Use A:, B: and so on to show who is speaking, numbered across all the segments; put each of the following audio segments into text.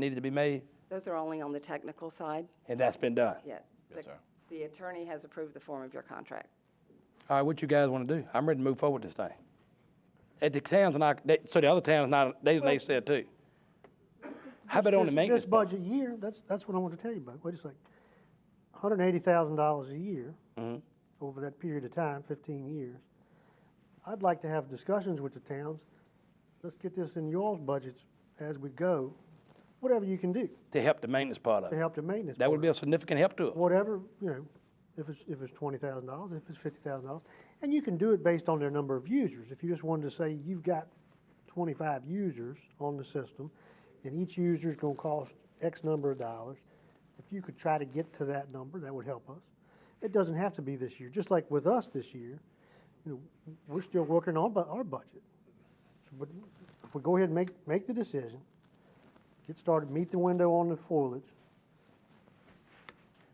A: needed to be made,
B: Those are only on the technical side,
A: and that's been done.
B: yes.
C: Yes, sir.
B: The attorney has approved the form of your contract.
A: All right, what you guys want to do? I'm ready to move forward this thing. At the towns, and I, they- so the other towns, not, they, they said too. How about on the
D: This-
A: maintenance?
D: This
A: part?
D: budget year, that's, that's what I want to tell you about. Wait a second. Hundred and eighty thousand dollars a year
A: Mm-hmm.
D: over that period of time, fifteen years. I'd like to have discussions with the towns. Let's get this in y'all's budgets as we go, whatever you can do
A: To help the maintenance part of
D: to
A: it.
D: help the maintenance.
A: That would
D: part.
A: be a significant help to us.
D: Whatever, you know, if it's, if it's twenty thousand dollars, if it's fifty thousand dollars. And you can do it based on their number of users. If you just wanted to say you've got twenty-five users on the system, and each user's gonna cost X number of dollars, if you could try to get to that number, that would help us. It doesn't have to be this year, just like with us this year, you know, we're still working on bu- our budget. So, But if we go ahead and make, make the decision, get started, meet the window on the foliage,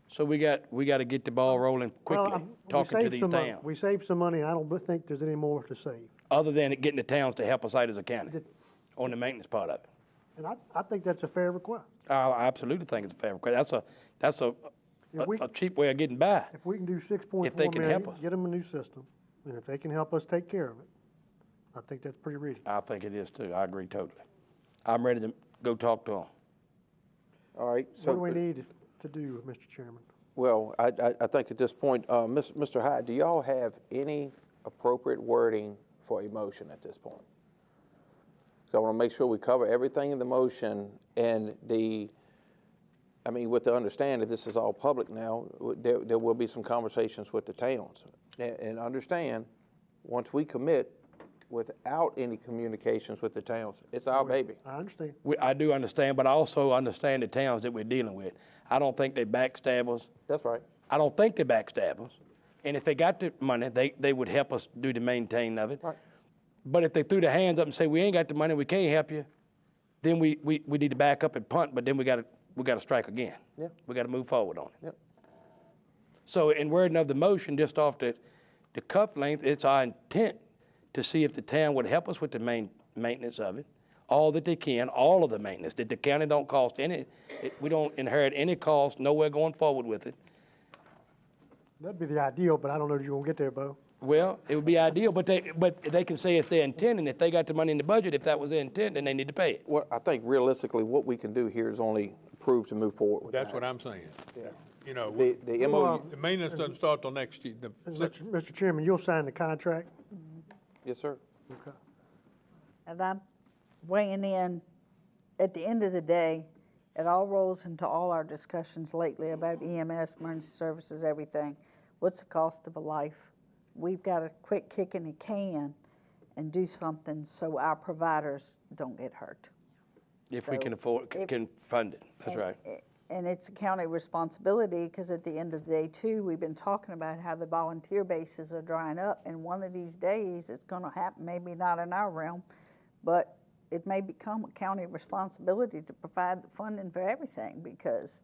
A: So we got, we got to get the ball rolling
D: Well,
A: quickly,
D: I'm- we
A: talking to
D: saved
A: these
D: some money.
A: towns,
D: We saved some money, I don't b- think there's any more to save.
A: other than it getting the towns to help us out as a county
D: Did-
A: on the maintenance part of it.
D: And I, I think that's a fair request.
A: I I absolutely think it's a fair request. That's a, that's a,
D: Yeah, we-
A: a a cheap way of getting by.
D: If we can do six point
A: they
D: four
A: can help
D: million,
A: us.
D: get them a new system, and if they can help us take care of it, I think that's pretty reasonable.
A: I think it is too. I agree totally. I'm ready to go talk to them.
E: All right,
D: What do we
E: so,
D: need to do, Mr. Chairman?
E: well, I, I, I think at this point, uh, Ms- Mr. Hyde, do y'all have any appropriate wording for a motion at this point? So I want to make sure we cover everything in the motion and the, I mean, with the understanding this is all public now, w- there, there will be some conversations with the towns. And, and understand, once we commit, without any communications with the towns, it's our baby.
D: I understand.
A: We, I do understand, but I also understand the towns that we're dealing with. I don't think they backstab us.
E: That's right.
A: I don't think they backstab us. And if they got the money, they, they would help us do the maintaining of it.
E: Right.
A: But if they threw their hands up and say, we ain't got the money, we can't help you, then we, we, we need to back up and punt, but then we gotta, we gotta strike again.
E: Yeah.
A: We gotta move forward on it.
E: Yep.
A: So in wording of the motion, just off the, the cuff length, it's our intent to see if the town would help us with the main, maintenance of it, all that they can, all of the maintenance, that the county don't cost any, it- we don't inherit any cost, nowhere going forward with it.
D: That'd be the ideal, but I don't know if you're gonna get there, Bo.
A: Well, it would be ideal, but they, but they can say it's their intent, and if they got the money in the budget, if that was their intent, then they need to pay it.
E: Well, I think realistically, what we can do here is only approve to move forward with that.
F: That's what I'm saying. You know,
E: The,
F: we-
E: the MOU,
F: the maintenance doesn't start till next year. the-
D: And Mr. Mr. Chairman, you'll sign the contract?
E: yes, sir.
D: Okay.
G: And I'm weighing in, at the end of the day, it all rolls into all our discussions lately about EMS, emergency services, everything. What's the cost of a life? We've got to quit kicking the can and do something so our providers don't get hurt.
A: If we
G: So
A: can afford, c-
G: if-
A: can fund it, that's right.
G: A- And it's a county responsibility, because at the end of the day, too, we've been talking about how the volunteer bases are drying up, and one of these days, it's gonna happen, maybe not in our realm, but it may become a county responsibility to provide the funding for everything, because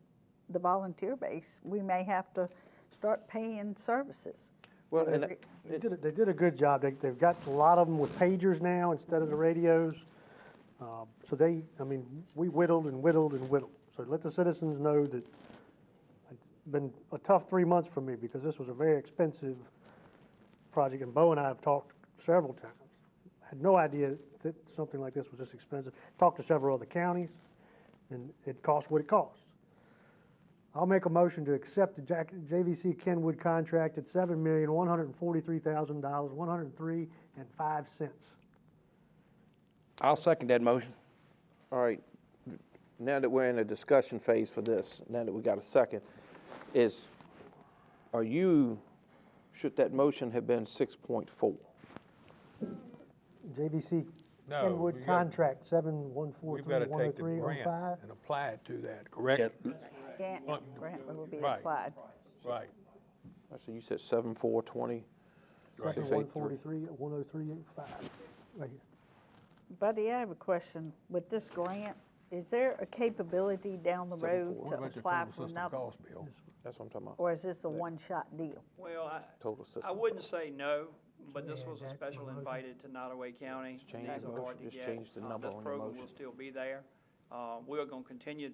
G: the volunteer base, we may have to start paying services.
E: Well, and
G: Every-
D: They did, a- they did a good job. They, they've got a lot of them with pagers now instead of the radios. Uh, So they, I mean, we whittled and whittled and whittled. So let the citizens know that it's been a tough three months for me because this was a very expensive project. And Bo and I have talked several times. Had no idea that something like this was this expensive. Talked to several other counties and it cost what it costs. I'll make a motion to accept the Jack- JVC Kenwood contract at seven million, one hundred and forty-three thousand dollars, one hundred and three and five cents.
A: I'll second that motion.
E: all right, now that we're in a discussion phase for this, now that we got a second, is, are you, should that motion have been six point four?
D: JVC
F: No, we
D: Kenwood
F: got-
D: contract, seven one four
F: We've
D: three
F: got to
D: one oh
F: take the
D: three oh five.
F: grant and apply it to that, correct?
G: Grant,
F: What-
G: grant will be
F: Right.
G: applied.
F: Right.
E: So you said seven, four, twenty?
F: Right.
D: Seven one forty-three, one oh three eight five, right here.
G: Buddy, I have a question. With this grant, is there a capability down the road
F: What
G: to
F: about your
G: apply
F: total
G: for
F: system
G: another?
F: cost, Bill?
E: That's what I'm talking about,
G: Or is this a one-shot deal?
H: Well, I,
E: total
H: I
E: system.
H: wouldn't say no, but this was
D: add that to my
H: a special
D: motion.
H: invited to Nottaway County.
E: change
H: These
E: the
H: are
E: motion.
H: hard to
E: Just
H: get.
E: change the
H: Uh,
E: number on your
H: This program will
E: motion.
H: still be there. Uh, We are going to continue